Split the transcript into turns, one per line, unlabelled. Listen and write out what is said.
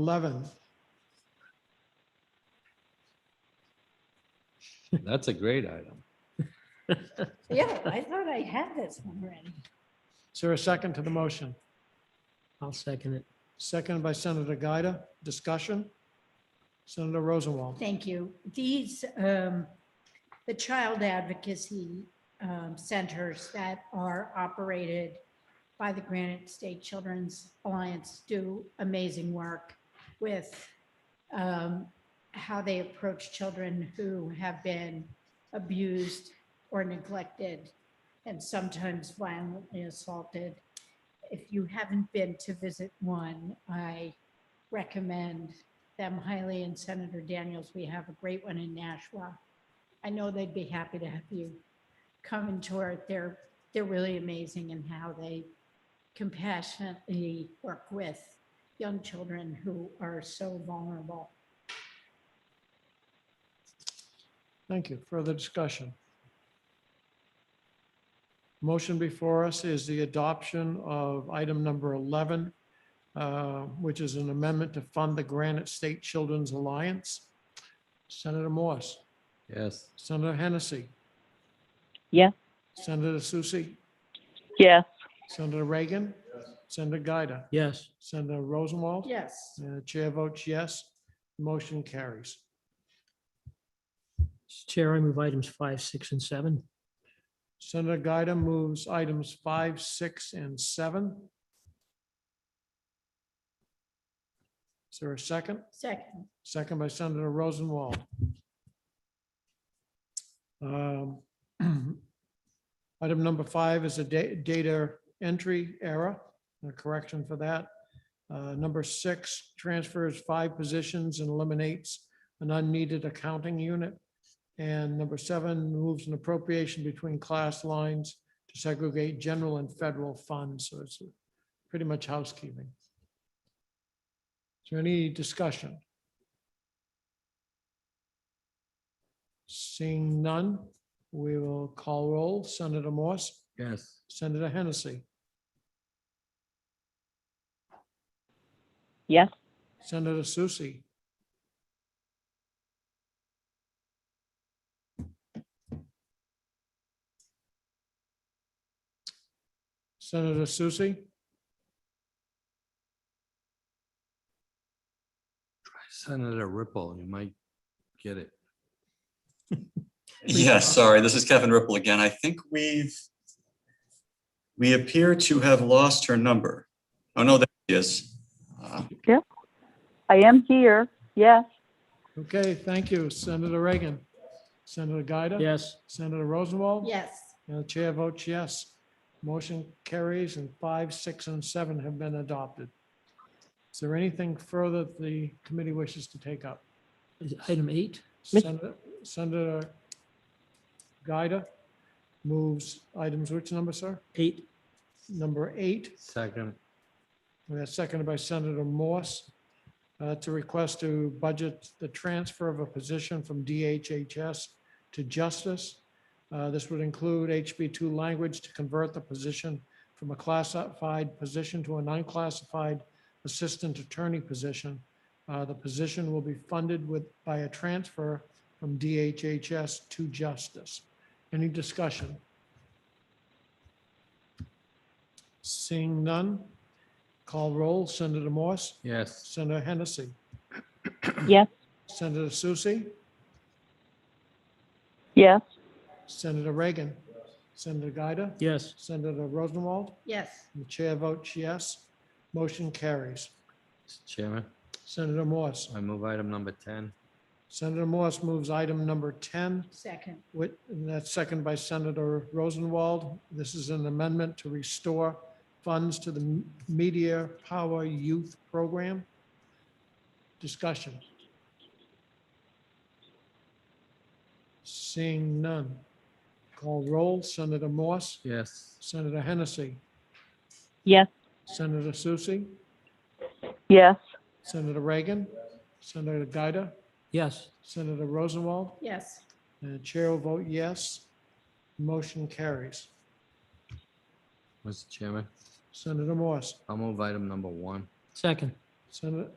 11th.
That's a great item.
Yeah, I thought I had this one ready.
Is there a second to the motion?
I'll second it.
Seconded by Senator Gaida. Discussion? Senator Rosenwald.
Thank you. These, um, the child advocacy um, centers that are operated by the Granite State Children's Alliance do amazing work with um, how they approach children who have been abused or neglected and sometimes violently assaulted. If you haven't been to visit one, I recommend them highly and Senator Daniels, we have a great one in Nashua. I know they'd be happy to have you come and tour it. They're, they're really amazing in how they compassionately work with young children who are so vulnerable.
Thank you. Further discussion? Motion before us is the adoption of item number 11, uh, which is an amendment to fund the Granite State Children's Alliance. Senator Morse,
Yes.
Senator Hennessy.
Yes.
Senator Susie,
Yes.
Senator Reagan, Senator Gaida,
Yes,
Senator Rosenwald.
Yes.
And the chair votes yes, motion carries.
Chair, I move items five, six, and seven.
Senator Gaida moves items five, six, and seven. Is there a second?
Second,
Second by Senator Rosenwald. Um, Item number five is a da- data entry error, a correction for that. Uh, Number six, transfers five positions and eliminates an unneeded accounting unit. And number seven, moves an appropriation between class lines to segregate general and federal funds. So it's pretty much housekeeping. Is there any discussion? Seeing none, we will call roll. Senator Morse,
Yes.
Senator Hennessy,
Yes.
Senator Susie, Senator Susie,
Try Senator Ripple, you might get it.
Yeah, sorry, this is Kevin Ripple again. I think we've, we appear to have lost her number. Oh, no, there she is. Uh,
I am here. Yes.
Okay, thank you. Senator Reagan, Senator Gaida.
Yes,
Senator Rosenwald.
yes.
And the chair votes yes. Motion carries and five, six, and seven have been adopted. Is there anything further the committee wishes to take up?
Is item eight.
Mis-
Senator- Senator Gaida moves items, which number, sir?
Eight.
Number eight,
Second.
and that's seconded by Senator Morse, uh, to request to budget the transfer of a position from DHHS to Justice. Uh, This would include HB2 language to convert the position from a classified position to an unclassified assistant attorney position. Uh, The position will be funded with, by a transfer from DHHS to Justice. Any discussion? Seeing none, call roll. Senator Morse,
Yes.
Senator Hennessy,
Yes.
Senator Susie,
Yes.
Senator Reagan, Senator Gaida,
Yes,
Senator Rosenwald,
Yes.
and the chair votes yes. Motion carries.
Mr. Chairman,
Senator Morse.
I move item number 10.
Senator Morse moves item number 10,
Second,
with, and that's second by Senator Rosenwald. This is an amendment to restore funds to the M- Media Power Youth Program. Discussion. Seeing none. Call roll. Senator Morse,
Yes.
Senator Hennessy,
Yes.
Senator Susie,
Yes.
Senator Reagan, Senator Gaida,
yes,
Senator Rosenwald,
yes.
And the chair will vote yes. Motion carries.
Mr. Chairman,
Senator Morse,
I'll move item number one.
second.
Senator,